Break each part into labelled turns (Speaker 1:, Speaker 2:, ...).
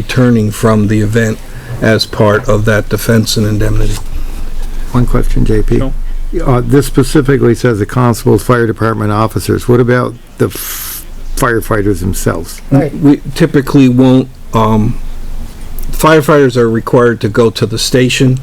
Speaker 1: returning from the event as part of that defense and indemnity.
Speaker 2: One question, JP. Uh, this specifically says the constables, fire department officers. What about the f- firefighters themselves?
Speaker 3: Right.
Speaker 1: We typically won't, um, firefighters are required to go to the station.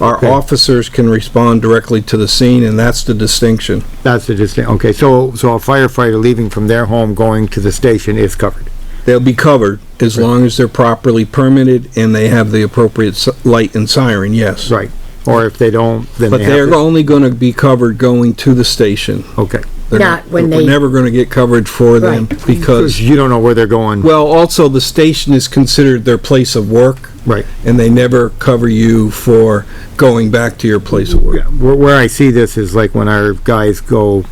Speaker 1: Our
Speaker 2: Okay.
Speaker 1: officers can respond directly to the scene, and that's the distinction.
Speaker 2: That's the distinct, okay, so, so a firefighter leaving from their home going to the station is covered.
Speaker 1: They'll be covered as long as they're properly permitted and they have the appropriate s- light and siren, yes.
Speaker 2: Right. Or if they don't, then
Speaker 1: But
Speaker 2: they have
Speaker 1: they're
Speaker 2: to.
Speaker 1: only gonna be covered going to the station.
Speaker 2: Okay.
Speaker 1: They're
Speaker 3: Not when
Speaker 1: We're
Speaker 3: they-
Speaker 1: never gonna get coverage for them because,
Speaker 2: You don't know where they're going.
Speaker 1: well, also the station is considered their place of work.
Speaker 2: Right.
Speaker 1: And they never cover you for going back to your place of work.
Speaker 2: Yeah, Where, where I see this is like when our guys go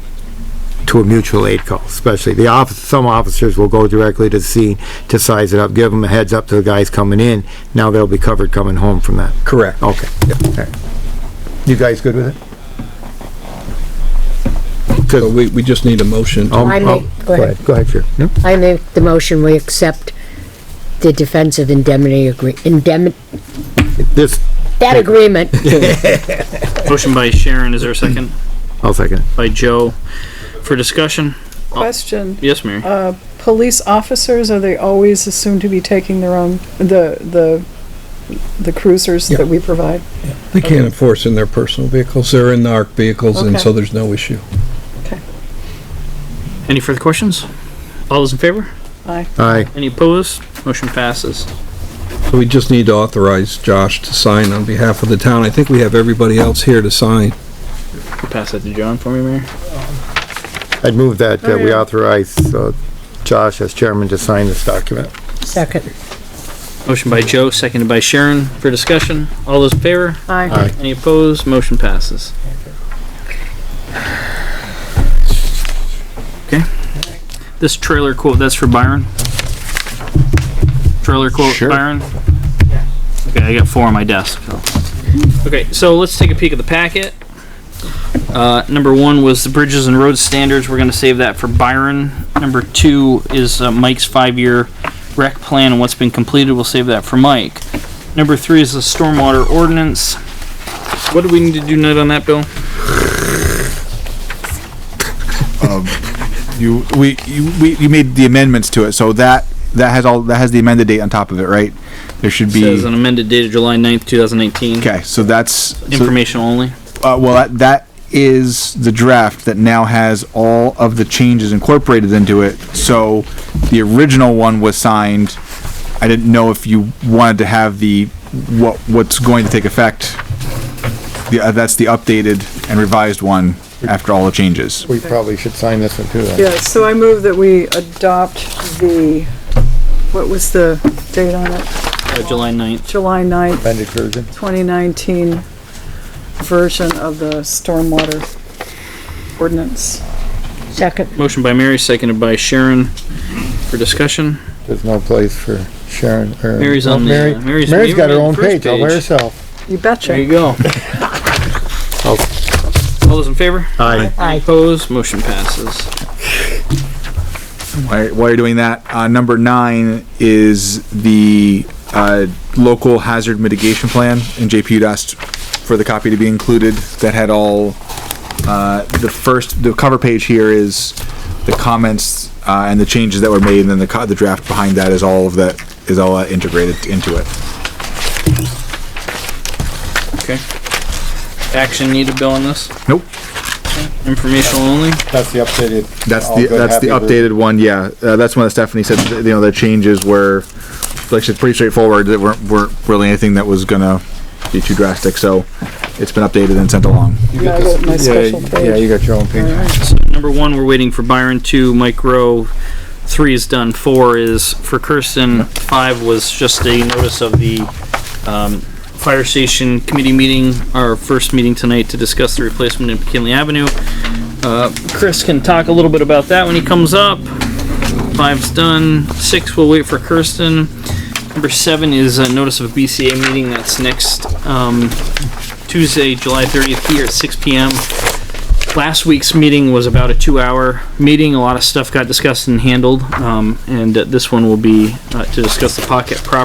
Speaker 2: to a mutual aid call, especially the office, some officers will go directly to the scene to size it up, give them a heads up to the guys coming in. Now they'll be covered coming home from that.
Speaker 1: Correct.
Speaker 2: Okay. Alright. You guys good with it?
Speaker 1: So we, we just need a motion.
Speaker 2: Um,
Speaker 3: I make-
Speaker 2: um,
Speaker 3: go ahead.
Speaker 2: Go ahead, sure. No?
Speaker 3: I make the motion, we accept the defensive indemnity agree, indemn,
Speaker 2: This,
Speaker 3: that agreement.
Speaker 4: Motion by Sharon, is there a second?
Speaker 2: I'll second. it.
Speaker 4: By Joe. For discussion?
Speaker 5: Question,
Speaker 4: Yes, Mary?
Speaker 5: police officers, are they always assumed to be taking their own, the, the, the cruisers that we provide?
Speaker 1: They can't enforce in their personal vehicles. They're in our vehicles and
Speaker 5: Okay.
Speaker 1: so there's no issue.
Speaker 4: Any further questions? All those in favor?
Speaker 5: Aye.
Speaker 2: Aye,
Speaker 4: Any opposed? Motion passes.
Speaker 1: So we just need to authorize Josh to sign on behalf of the town. I think we have everybody else here to sign.
Speaker 4: You Pass that to John for me, Mary?
Speaker 2: I'd move that, uh
Speaker 3: Oh,
Speaker 2: we authorize, uh, Josh as chairman to sign this document.
Speaker 3: Second.
Speaker 4: Motion by Joe, seconded by Sharon. For discussion? All those in favor?
Speaker 2: Aye.
Speaker 4: Any opposed? Motion passes. Okay. This trailer quote, that's for Byron? Trailer quote,
Speaker 2: Sure.
Speaker 4: Byron? Okay, I got four on my desk. so. Okay, so let's take a peek at the packet. Uh, number one was the bridges and road standards. We're gonna save that for Byron. Number two is uh, Mike's five-year rec plan and what's been completed. We'll save that for Mike. Number three is the stormwater ordinance. What do we need to do tonight on that, Bill?
Speaker 6: You, we, you, we, you made the amendments to it, so that, that has all, that has the amended date on top of it, right? There should
Speaker 4: Says
Speaker 6: be,
Speaker 4: an amended date of July 9th, 2019.
Speaker 6: okay, so that's, so,
Speaker 4: Information only.
Speaker 6: uh, well, that, that is the draft that now has all of the changes incorporated into it. So the original one was signed. I didn't know if you wanted to have the, what, what's going to take effect. The, uh, that's the updated and revised one after all the changes.
Speaker 2: We probably should sign this one too then.
Speaker 5: Yeah, so I move that we adopt the, what was the date on it?
Speaker 4: Uh, July 9th.
Speaker 5: July 9th,
Speaker 2: Amended version.
Speaker 5: 2019 version of the stormwater ordinance.
Speaker 3: Second.
Speaker 4: Motion by Mary, seconded by Sharon for discussion.
Speaker 2: There's no place for Sharon or.
Speaker 4: Mary's on the,
Speaker 2: Mary-
Speaker 4: uh, Mary's-
Speaker 2: Mary's got her
Speaker 4: Mary-
Speaker 2: own
Speaker 4: first
Speaker 2: page all by
Speaker 4: page.
Speaker 2: herself.
Speaker 5: You
Speaker 4: There you
Speaker 5: betcha.
Speaker 4: go. All
Speaker 6: Oh.
Speaker 4: those in favor?
Speaker 2: Aye.
Speaker 3: Aye.
Speaker 4: Opposed? Motion passes.
Speaker 6: All right, while you're doing that, uh, number nine is the, uh, local hazard mitigation plan, and JP had asked for the copy to be included, that had all, uh, the first, the cover page here is the comments, uh, and the changes that were made, and then the co- the draft behind that is all of that, is all uh, integrated into it.
Speaker 4: Okay. Action needed, Bill, on this?
Speaker 6: Nope.
Speaker 4: Informational only?
Speaker 2: That's the updated.
Speaker 6: That's
Speaker 2: all
Speaker 6: the,
Speaker 2: good,
Speaker 6: that's the
Speaker 2: happy with-
Speaker 6: updated one, yeah, uh, that's one that Stephanie said, that, you know, the changes were, like I said, pretty straightforward, that weren't, weren't really anything that was gonna be too drastic, so it's been updated and sent along.
Speaker 5: Yeah, I got my special
Speaker 2: Yeah,
Speaker 5: page.
Speaker 2: you got your own page.
Speaker 4: Number one, we're waiting for Byron. Two, Mike Rowe. Three is done. Four is for Kirsten. Five was just a notice of the um, fire station committee meeting, our first meeting tonight to discuss the replacement in McKinley Avenue. Uh, Chris can talk a little bit about that when he comes up. Five's done. Six, we'll wait for Kirsten. Number seven is a notice of a BCA meeting. That's next um, Tuesday, July 30th here at 6 p.m. last week's meeting was about a two-hour meeting. A lot of stuff got discussed and handled, um, and uh, this one will be uh, to discuss the pocket property